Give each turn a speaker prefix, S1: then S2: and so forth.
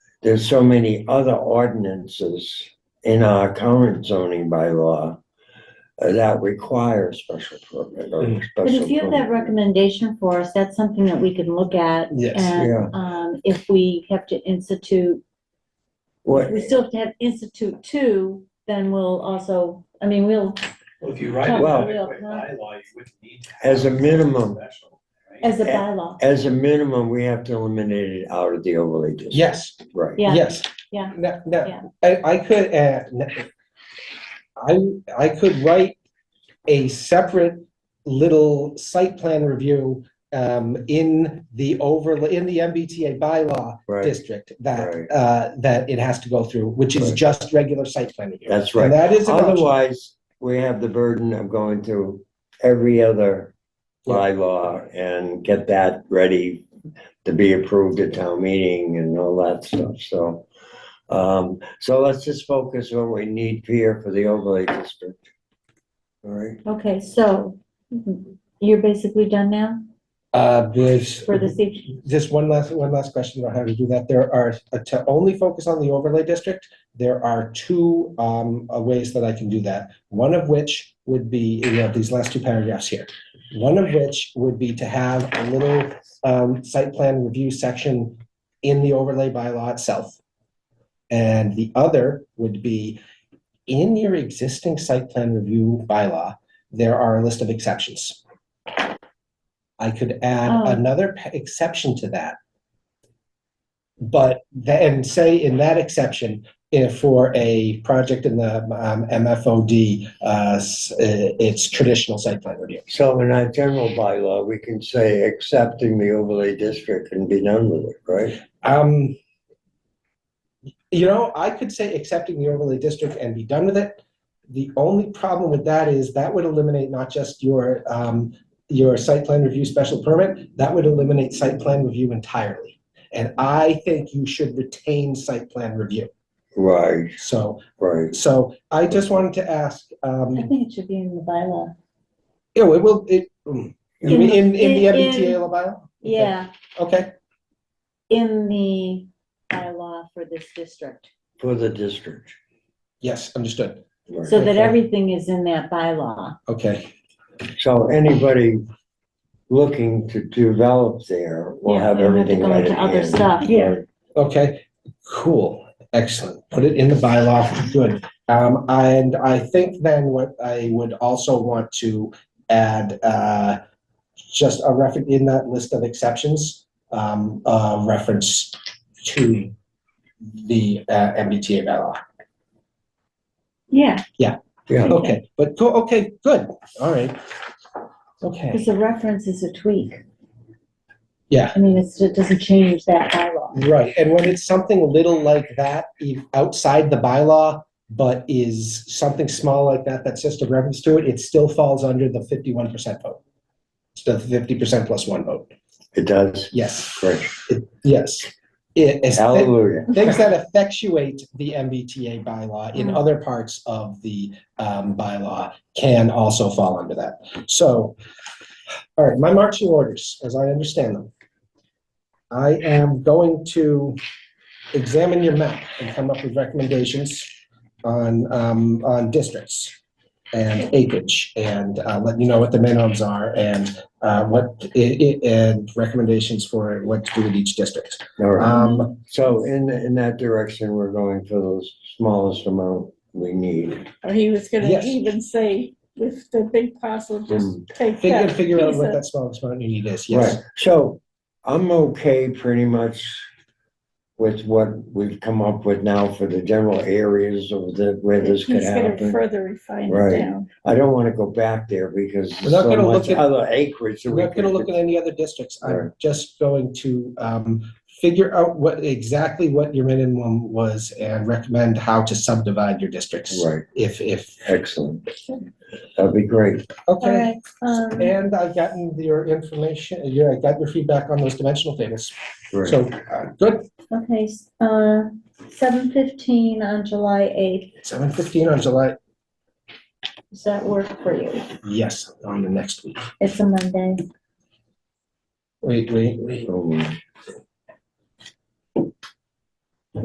S1: there's so many other ordinances in our current zoning bylaw uh, that require special permit or
S2: Mm.
S3: But
S1: special.
S3: if you have that
S1: permit.
S3: recommendation for us, that's something that we can look at.
S2: Yes.
S1: Yeah.
S3: And, um, if we have to institute,
S1: What,
S3: we still have to have institute two, then we'll also, I mean, we'll,
S4: Well, if you write it
S1: Well-
S4: by by bylaw, you wouldn't need to. have
S1: As a minimum.
S4: special, right?
S3: as a
S1: Yeah.
S3: bylaw,
S1: as a minimum, we have to eliminate it out of the overlay district.
S2: Yes,
S1: Right.
S3: Yeah.
S2: yes.
S3: Yeah.
S2: No,
S3: Yeah.
S2: no, I, I could, uh, n- I, I could write a separate little site plan review, um, in the overlay, in the MBTA bylaw
S1: Right,
S2: district that,
S1: Right.
S2: uh, that it has to go through, which is
S1: Right.
S2: just regular site plan review.
S1: that's
S2: And
S1: right.
S2: that is an option.
S1: Otherwise, we have the burden of going to every other
S2: Yeah.
S1: bylaw and get that ready to be approved at town meeting and all that stuff, so. Um, so let's just focus on what we need here for the overlay district. All right,
S3: okay, so mhm, you're basically done now
S2: Uh, with.
S3: for this evening?
S2: Just one last, one last question about how to do that. There are, uh, to only focus on the overlay district, there are two um, uh, ways that I can do that. One of which would be, you know, these last two paragraphs here. One of which would be to have a little um, site plan review section in the overlay bylaw itself. And the other would be in your existing site plan review bylaw, there are a list of exceptions. I could add
S3: Oh.
S2: another p- exception to that. But then say in that exception, if for a project in the um, MFOD, uh, s- uh, it's traditional site plan review.
S1: so in our general bylaw, we can say accepting the overlay district and be done with it, right?
S2: Um, you know, I could say accepting the overlay district and be done with it. The only problem with that is that would eliminate not just your, um, your site plan review special permit, that would eliminate site plan review entirely. And I think you should retain site plan review.
S1: Right,
S2: So,
S1: right.
S2: so I just wanted to ask, um,
S3: I think it should be in the bylaw.
S2: you know, it will, it, mm, you mean in, in the
S3: In-
S2: MBTA
S3: in-
S2: bylaw?
S3: Yeah,
S2: Okay,
S3: in the bylaw for this district,
S1: For the district.
S2: yes, understood.
S1: right.
S3: so that
S2: Okay.
S3: everything is in that bylaw.
S2: Okay,
S1: So anybody looking to develop there will
S3: Yeah,
S1: have
S3: we don't have to
S1: everything
S3: go
S1: right
S3: into
S1: at
S3: other
S1: hand.
S3: stuff.
S1: Yeah.
S2: okay, cool, excellent. Put it in the bylaw, good. Um, and I think then what I would also want to add, uh, just a reference in that list of exceptions, um, a reference to the, uh, MBTA bylaw.
S3: Yeah,
S1: Yeah,
S2: Okay, but, cool, okay, good, all right. Okay,
S3: Because a reference is a tweak.
S2: yeah.
S3: I mean, it's, it doesn't change that bylaw.
S2: Right, and when it's something little like that, if outside the bylaw, but is something small like that, that's just a reference to it, it still falls under the fifty-one percent vote. It's the fifty percent plus one vote,
S1: it does.
S2: yes,
S1: Great.
S2: yes. It, it's thi-
S1: Hallelujah.
S2: things that effectuate the MBTA bylaw in
S3: Mm.
S2: other parts of the, um, bylaw can also fall under that. So, all right, my marching orders, as I understand them. I am going to examine your map and come up with recommendations on, um, on districts and acreage, and, uh, let you know what the minimums are and, uh, what, i- i- and recommendations for what to do with each district.
S1: All right.
S2: Um,
S1: So in, in that direction, we're going for the smallest amount we need.
S5: Or he was gonna
S2: Yes.
S5: even say, with the big parcel, just
S1: Mm.
S5: take
S2: figure,
S5: that.
S2: figure out
S5: piece
S2: what
S5: of-
S2: that smallest amount you need is,
S1: Right.
S2: yes.
S1: So I'm okay pretty much with what we've come up with now for the general areas of the, where this could
S5: He's gonna
S1: happen.
S5: further refine
S1: Right.
S5: it down.
S1: I don't want to go back there because
S2: We're
S1: there's
S2: not
S1: so
S2: gonna look
S1: much
S2: at-
S1: other acreage. that
S2: I'm
S1: we
S2: not gonna
S1: could-
S2: look at any other districts, I'm
S1: Right.
S2: just going to, um, figure out what, exactly what your minimum was and recommend how to subdivide your districts.
S1: Right,
S2: If, if,
S1: excellent. That'd be great.
S5: All
S2: okay,
S5: right, um,
S2: and I've gotten your information, your, I got your feedback on those dimensional tables,
S1: Great.
S2: so, uh, good.
S3: Okay, s- uh, seven fifteen on July eighth,
S2: Seven fifteen on July,
S3: does that work for you?
S2: yes, on the next week.
S3: It's a Monday.
S2: Wait, wait, wait,
S1: Oh, my.